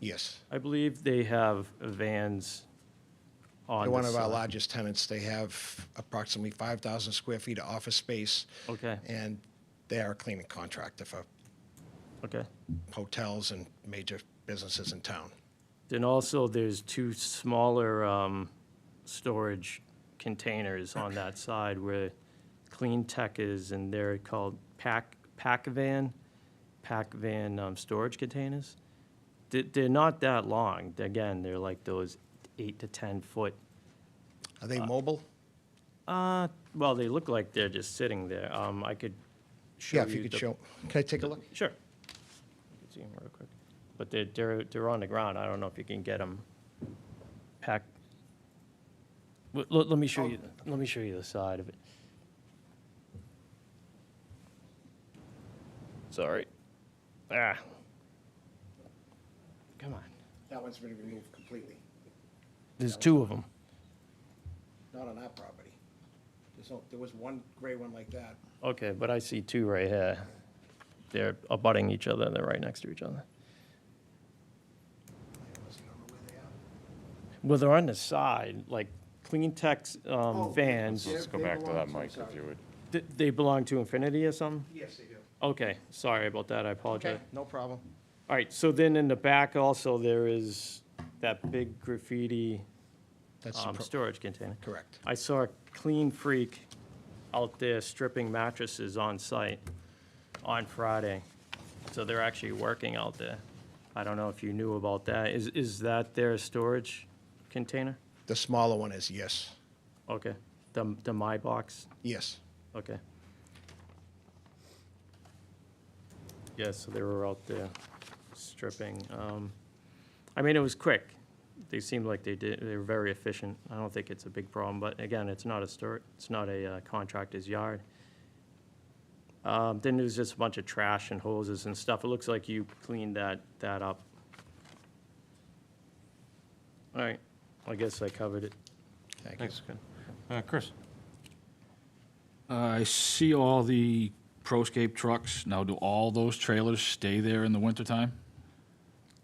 Yes. I believe they have vans on They're the one of our side. largest tenants. They have approximately 5,000 square feet of office space. Okay. And they are a cleaning contractor for Okay. hotels and major businesses in town. Then also, there's two smaller um, storage containers on that side where Clean Tech is, and they're called pack, pack van, pack van um, storage containers. They- They're not that long. Again, they're like those eight to 10-foot, Are they mobile? well, they look like they're just sitting there. Um, I could show you. Yeah, if you could the- show, can I take a look? Sure. You can see 'em real quick. But they're, they're, they're on the ground. I don't know if you can get them packed. Let, let me show you, let me show you the side of it. Sorry. Ah. Come on. That one's been removed completely, There's two of them. not on our property. There's, no- there was one gray one like that. Okay, but I see two right here. They're abutting each other. They're right next to each other. Unless you don't know where they are. Well, they're on the side, like Clean Tech's, um, Oh, vans. yeah. Let's go They back to belong that to the mic if side. you would. Th- They belong to Infinity or something? Yes, they do. Okay, sorry about that, I apologize. Okay, no problem. All right, so then in the back also, there is that big graffiti That's the um, pro- storage container. correct. I saw a clean freak out there stripping mattresses on site on Friday. So they're actually working out there. I don't know if you knew about that. Is, is that their storage container? The smaller one is yes, Okay, the, the My Box? yes. Okay. Yeah, so they were out there stripping. Um, I mean, it was quick. They seemed like they did, they were very efficient. I don't think it's a big problem, but again, it's not a store, it's not a uh, contractor's yard. Um, Then there's just a bunch of trash and hoses and stuff. It looks like you cleaned that, that up. All right, I guess I covered it. Thank you. Thanks. Uh, Chris? I see all the Proscape trucks. Now, do all those trailers stay there in the wintertime?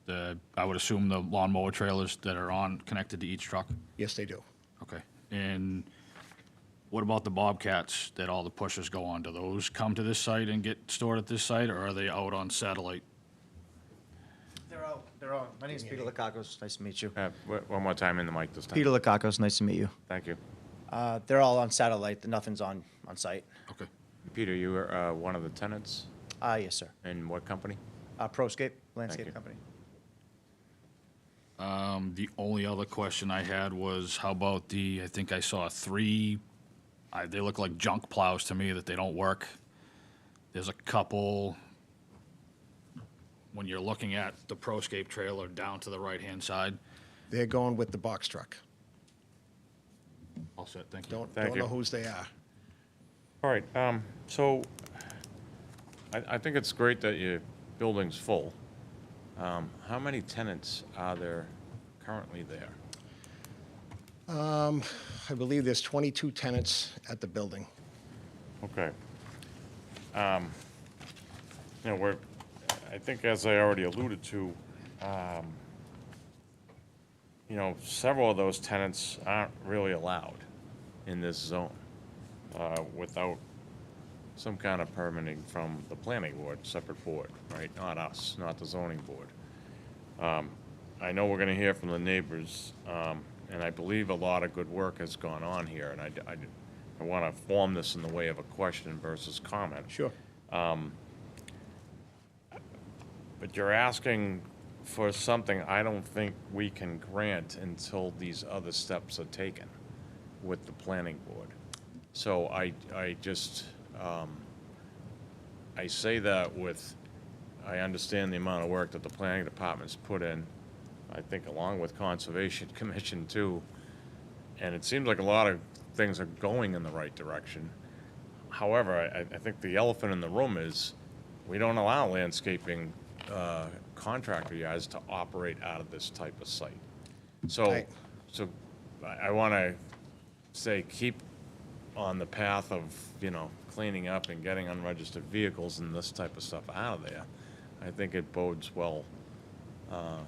The, I would assume the lawnmower trailers that are on, connected to each truck? Yes, they do. Okay. And what about the Bobcats that all the pushers go on? Do those come to this site and get stored at this site, or are they out on satellite? They're all, they're all. My name's Peter Lakakos. Nice to meet you. Uh, w- One more time in the mic this time. Peter Lakakos. Nice to meet you. Thank you. Uh, they're all on satellite. Nothing's on, on site. Okay. Peter, you were uh, one of the tenants Ah, yes, sir. in what company? Uh, Proscape you. Landscape Company. Um, the only other question I had was, how about the, I think I saw three, I, they look like junk plows to me that they don't work. There's a couple, when you're looking at the Proscape trailer down to the right-hand side. They're going with the box truck. All set, thank you. Don't, Thank don't you. know whose they are. All right, um, so I, I think it's great that your building's full. Um, How many tenants are there currently there? I believe there's 22 tenants at the building. Okay. Um, You know, we're, I think as I already alluded to, um, you know, several of those tenants aren't really allowed in this zone uh, without some kind of permitting from the planning board, separate board, right? Not us, not the zoning board. Um, I know we're gonna hear from the neighbors, um, and I believe a lot of good work has gone on here, and I, d- I d- I wanna form this in the way of a question versus comment. Um, Sure. But you're asking for something I don't think we can grant until these other steps are taken with the planning board. So I, I just, um, I say that with, I understand the amount of work that the planning department's put in, I think along with Conservation Commission too. And it seems like a lot of things are going in the right direction. However, I, I think the elephant in the room is, we don't allow landscaping uh, contractor yards to operate out of this type of site. So, Right. so I want to say, keep on the path of, you know, cleaning up and getting unregistered vehicles and this type of stuff out of there. I think it bodes well uh,